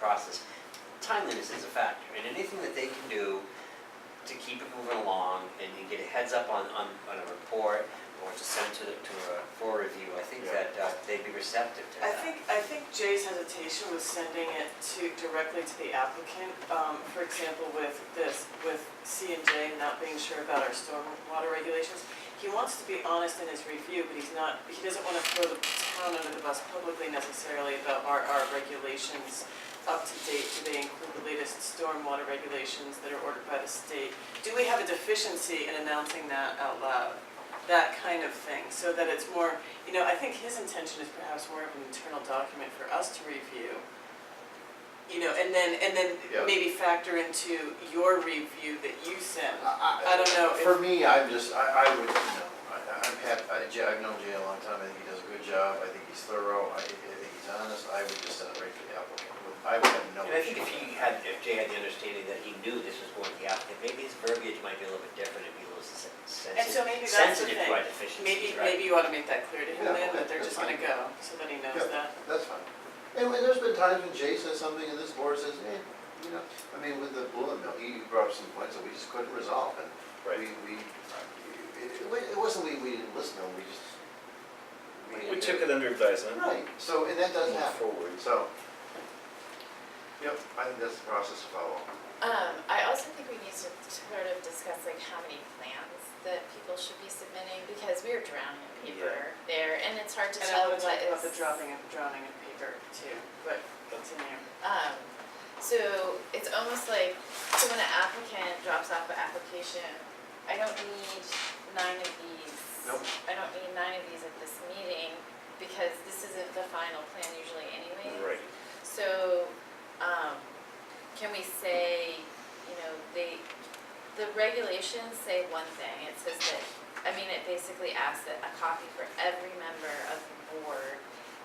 process. Timeliness is a factor, and anything that they can do to keep it moving along and and get a heads up on, on, on a report or to send to, the- to a, for review, I think that Yeah. uh, they'd be receptive to I that. think, I think Jay's hesitation was sending it to, directly to the applicant, um, for example, with this, with C and J not being sure about our stormwater regulations. He wants to be honest in his review, but he's not, he doesn't wanna throw the town under the bus publicly necessarily about our, our regulations up to date, do they include the latest stormwater regulations that are ordered by the state? Do we have a deficiency in announcing that out loud? That kind of thing, so that it's more you know, I think his intention is perhaps more of an internal document for us to review. You know, and then, and then Yeah. maybe factor into your review that you send. Ah, I don't know if- For me, I'm just, I, I would, you know, I, I'm happy, I, Jay- I've known Jay a long time, I think he does a good job, I think he's thorough, I, think- I think he's honest, I would just send it right to the applicant. I would have no And I issue think if he with that. had, if Jay had the understanding that he knew this was going to the applicant, maybe his verbiage might be a little bit different and be a little sen- And so sensitive, maybe that's the sensitive to our thing. deficiencies, Maybe, right? maybe you ought to make that clear to him Yeah, then, that okay, they're just that's gonna fine. go, so that he knows Yeah. that. That's fine. And when, there's been times when Jay says something and this board says, eh, you know, I mean, with the bullet mill, he brought up some points that we just couldn't resolve and we, we, it, it wasn't we, we didn't listen, to him, we just. We took it under advisement. Right, so, and that does Move happen, forward. so. Yep, I think that's the process to follow. Um, I also think we need to sort of discuss like how many plans that people should be submitting, because we are drowning in paper there, and it's hard to And I tell wanna what talk is. about the dropping of, drowning of paper too, but it's in there. Um, so it's almost like, so when an applicant drops off an application, I don't need nine of these. Nope. I don't need nine of these at this meeting, because this isn't the final plan usually anyway. Right. So, um, can we say, you know, they, the regulations say one thing, it says that, I mean, it basically asks that a copy for every member of the board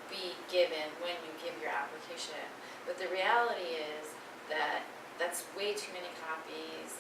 be given when you give your application. But the reality is that that's way too many copies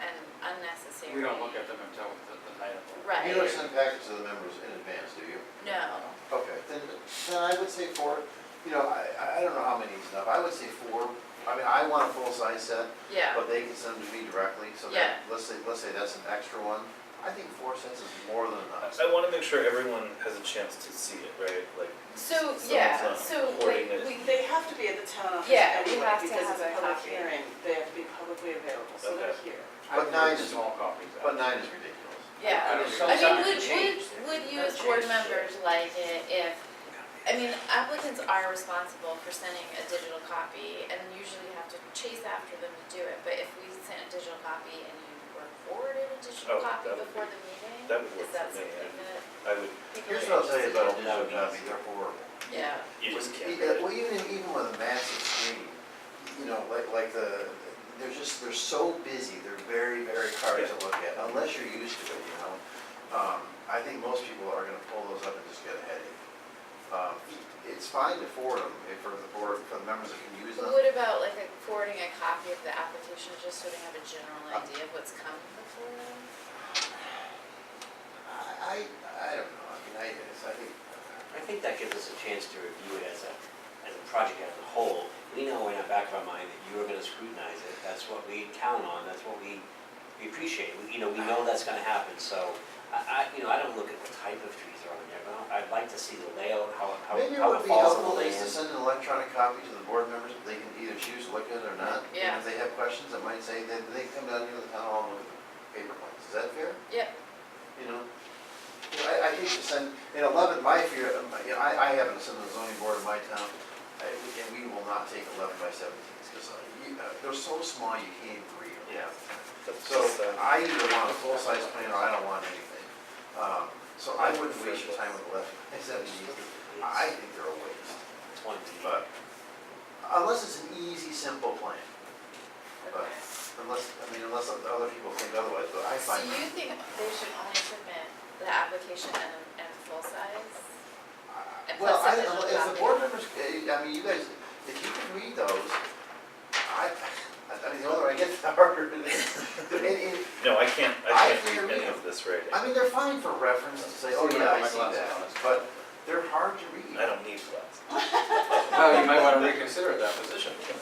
and unnecessary. We don't look at them until the, the night of. the- Right. You don't send packets to the members in advance, do you? No, Okay, then, then I would say four, you know, I, I- I don't know how many is enough, I would say four. I mean, I want a full-size set, yeah, but they can send them to me directly, so Yeah. that, let's say, let's say that's an extra one. I think four sets is more than enough. I want to make sure everyone has a chance to see it, right? Like. so, someone's yeah, not so hoarding like, it. we, They have to be at the town office Yeah, we anyway, have to because it's have a a public copy. hearing, they have to be publicly available, so they're Okay. here. I But think nine the is- Small copies. out. But nine is ridiculous. yeah. I mean, I mean, sometimes- would, would, change. would you as That'd board change. members like it if, I mean, applicants are responsible for sending a digital copy and usually have to chase after them to do it, but if we sent a digital copy and you were forwarded a digital Oh, copy that would before be- the that meeting, would work is that for me, something that I would, people Here's are what I'll tell you about interested a digital That in? copy, would be- they're horrible. Yeah, you just can't. Yeah, Well, even, even with a massive screen, you know, like, like the, they're just, they're so busy, they're very, very hard to look at, unless you're used to it, you know? Um, I think most people are gonna pull those up and just get a headache. Um, It's fine to forward them, if for the board, for the members that can use but them. what about like a- forwarding a copy of the application, just so they have a general Oh. idea of what's coming before them? I, I, I don't know, I mean, I, it's- I think, I think that gives us a chance to review it as a, as a project as a whole. We know in our back of our mind that you are gonna scrutinize it, that's what we count on, that's what we, we appreciate. We- You know, we know that's gonna happen, so I, I, you know, I don't look at the type of trees that are on there, but I'd like to see the layout, how, how, maybe it how it would be falls on the helpful is to land. send an electronic copy to the board members, they can either choose to look at it or not. And Yeah. If they have questions, it might say, then they come down here to the town hall and look at the paper ones, is that fair? Yep, you know? You know, I, I hate to send, in eleven, my fear, um, you know, I, I haven't sent the zoning board in my town, I- and we will not take eleven by seventeens, because uh, they're so small, you can't even read them. Yeah. That's So just, uh, I either want a full-size plan or I don't want anything. Um, So I wouldn't waste your time with eleven by seventeens, I think they're a waste, It's one deed. but unless it's an easy, simple plan, okay. unless, I mean, unless other people think otherwise, but I So find. you think they should only submit the application and, and full size? And Well, I, plus the digital if the copy. board members, eh, I mean, you guys, if you can read those, I, I mean, the older I get, the harder it is. And- and- No, I can't, I I hear can't read any you. of this writing. I mean, they're fine for reference to say, oh, See, yeah, I I like see lots of that, those. but they're hard to read. I don't need glasses. Well, you might wanna reconsider that position.